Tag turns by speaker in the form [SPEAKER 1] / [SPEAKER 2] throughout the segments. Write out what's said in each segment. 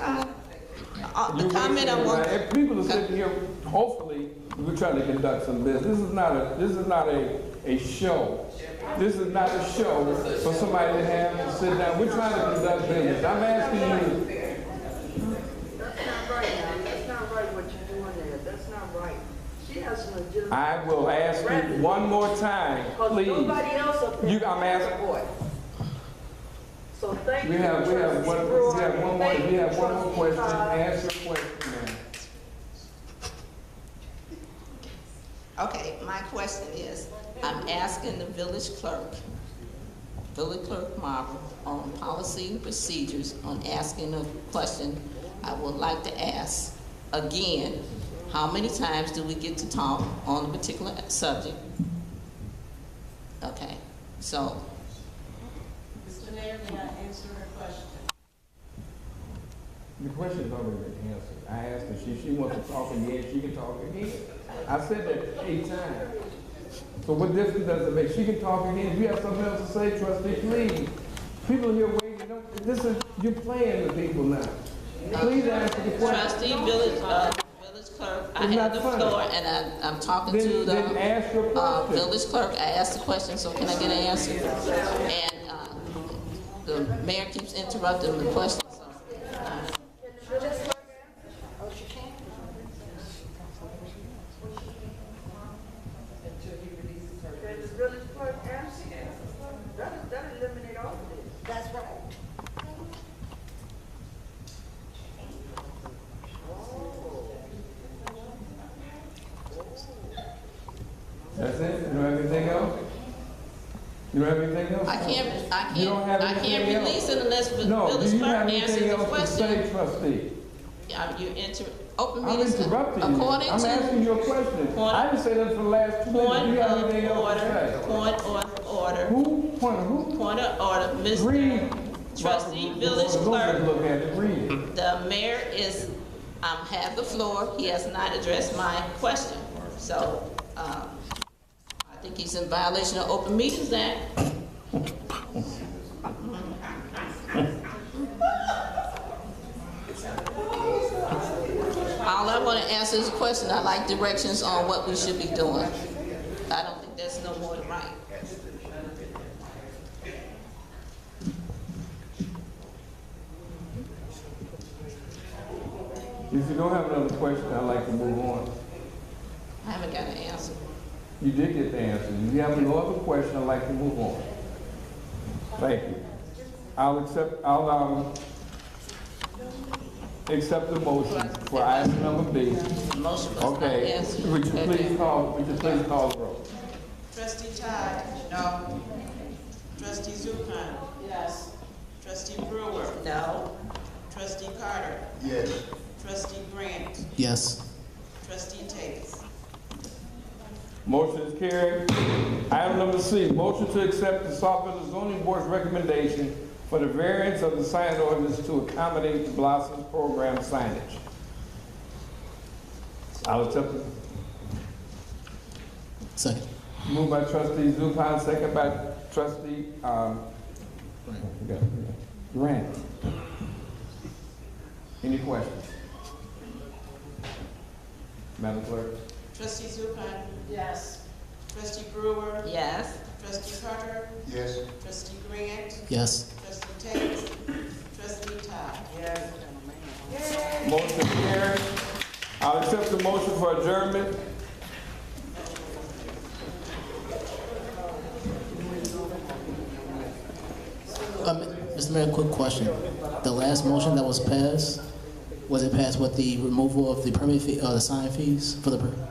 [SPEAKER 1] uh, uh, the comment I want.
[SPEAKER 2] If people are sitting here, hopefully, we're trying to conduct some business. This is not a, this is not a, a show. This is not a show for somebody to have to sit down. We're trying to conduct business. I'm asking you,
[SPEAKER 3] That's not right, man. That's not right what you're doing there. That's not right. She has an legitimate.
[SPEAKER 2] I will ask you one more time,
[SPEAKER 3] Because
[SPEAKER 2] please.
[SPEAKER 3] nobody else up there.
[SPEAKER 2] You- I'm asking-
[SPEAKER 3] Boy. So thank
[SPEAKER 2] We
[SPEAKER 3] you,
[SPEAKER 2] have, we have
[SPEAKER 3] trustee
[SPEAKER 2] one,
[SPEAKER 3] Brewer.
[SPEAKER 2] we have one more,
[SPEAKER 3] Thank
[SPEAKER 2] we
[SPEAKER 3] you,
[SPEAKER 2] have one more
[SPEAKER 3] trustee
[SPEAKER 2] question.
[SPEAKER 3] Todd.
[SPEAKER 2] Ask your question, ma'am.
[SPEAKER 1] Okay, my question is, I'm asking the village clerk, village clerk Marvel, on policy and procedures, on asking a question I would like to ask again. How many times do we get to talk on a particular subject? Okay, so,
[SPEAKER 4] Mr. Mayor, may I answer her question?
[SPEAKER 2] The question's already been answered. I asked her, she, she wants to talk again, she can talk again. I said that eight times. So what difference does it make? She can talk again. If you have something else to say, trustee, please. People here waiting, don't, this is, you're playing with people now. Please ask the question.
[SPEAKER 1] trustee village, uh, village clerk, I
[SPEAKER 2] It's
[SPEAKER 1] have
[SPEAKER 2] not
[SPEAKER 1] the
[SPEAKER 2] funny.
[SPEAKER 1] floor, and I, I'm talking to
[SPEAKER 2] Then, then
[SPEAKER 1] the,
[SPEAKER 2] ask your
[SPEAKER 1] uh,
[SPEAKER 2] question.
[SPEAKER 1] village clerk, I asked the question, so can I get an answer? And, uh, the mayor keeps interrupting the question, so.
[SPEAKER 3] Can the village clerk answer? That, that eliminate all of this.
[SPEAKER 2] That's it? You don't have anything else? You don't have anything else?
[SPEAKER 1] I can't, I
[SPEAKER 2] You don't
[SPEAKER 1] can't,
[SPEAKER 2] have
[SPEAKER 1] I can't
[SPEAKER 2] anything
[SPEAKER 1] release it unless the
[SPEAKER 2] No, do
[SPEAKER 1] village
[SPEAKER 2] you have
[SPEAKER 1] clerk answers
[SPEAKER 2] anything
[SPEAKER 1] the
[SPEAKER 2] else to
[SPEAKER 1] question.
[SPEAKER 2] say, trustee?
[SPEAKER 1] Yeah, You inter, open
[SPEAKER 2] I'm
[SPEAKER 1] meetings,
[SPEAKER 2] interrupting you.
[SPEAKER 1] according
[SPEAKER 2] I'm asking
[SPEAKER 1] to
[SPEAKER 2] you a question.
[SPEAKER 1] Point-
[SPEAKER 2] I didn't say that for the last two minutes. Do
[SPEAKER 1] point
[SPEAKER 2] you have
[SPEAKER 1] of
[SPEAKER 2] anything else to
[SPEAKER 1] order,
[SPEAKER 2] say?
[SPEAKER 1] point of order,
[SPEAKER 2] Who, point, who?
[SPEAKER 1] point of order,
[SPEAKER 2] Read.
[SPEAKER 1] Mr. Trustee,
[SPEAKER 2] Robert
[SPEAKER 1] village
[SPEAKER 2] Rules of
[SPEAKER 1] clerk.
[SPEAKER 2] Look at it, read it.
[SPEAKER 1] The mayor is, um, have the floor, he has not addressed my question. So, um, I think he's in violation of Open Meetings Act. All I wanna answer is a question, I like directions on what we should be doing. I don't think that's no more than right.
[SPEAKER 2] If you don't have another question, I'd like to move on.
[SPEAKER 1] I haven't got an answer.
[SPEAKER 2] You did get the answer. If you have no other question, I'd like to move on. Thank you. I'll accept, I'll, um, accept the motion for item number B.
[SPEAKER 1] Motion was not
[SPEAKER 2] Okay,
[SPEAKER 1] answered.
[SPEAKER 2] would you please call, would you please call the roll?
[SPEAKER 4] Trustee Todd? No. Trustee Zupan? Yes. Trustee Brewer?
[SPEAKER 1] No,
[SPEAKER 4] Trustee Carter?
[SPEAKER 5] Yes.
[SPEAKER 4] Trustee Grant?
[SPEAKER 6] Yes.
[SPEAKER 4] Trustee Tate?
[SPEAKER 2] Motion is carried. Item number C, motion to accept the Saltville zoning board's recommendation for the variance of the sign ordinance to accommodate the Blossoms Program signage. I'll accept it.
[SPEAKER 6] Second.
[SPEAKER 2] Moved by trustee Zupan, second by trustee, um, Grant. Any questions? Madam Clerk?
[SPEAKER 4] Trustee Zupan? Yes. Trustee Brewer?
[SPEAKER 1] yes.
[SPEAKER 4] Trustee Carter?
[SPEAKER 5] Yes.
[SPEAKER 4] Trustee Grant?
[SPEAKER 6] Yes.
[SPEAKER 4] Trustee Tate? Trustee Todd?
[SPEAKER 2] Motion carried. I'll accept the motion for adjournment.
[SPEAKER 6] Um, Mr. Mayor, quick question. The last motion that was passed, was it passed with the removal of the permit fee, uh, the sign fees for the, per-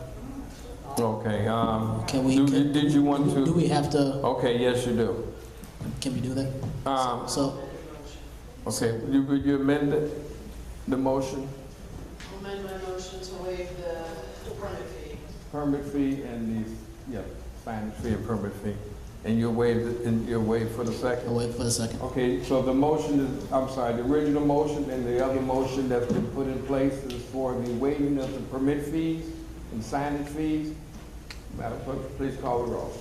[SPEAKER 2] Okay, um,
[SPEAKER 6] Can we-
[SPEAKER 2] do- did you want
[SPEAKER 6] do
[SPEAKER 2] to?
[SPEAKER 6] we have to,
[SPEAKER 2] Okay, yes, you do.
[SPEAKER 6] can we do that?
[SPEAKER 2] Um,
[SPEAKER 6] So,
[SPEAKER 2] okay, you, you amended the motion,
[SPEAKER 4] Amend my motion to waive the permit fee.
[SPEAKER 2] permit fee and the, yeah, signage fee and permit fee. And you waived, it- and you waived for the
[SPEAKER 6] I'll
[SPEAKER 2] second?
[SPEAKER 6] wait for a second.
[SPEAKER 2] Okay, so the motion is, I'm sorry, the original motion and the other motion that's been put in place is for the waiving of the permit fees and signage fees. Madam Clerk, please call the roll.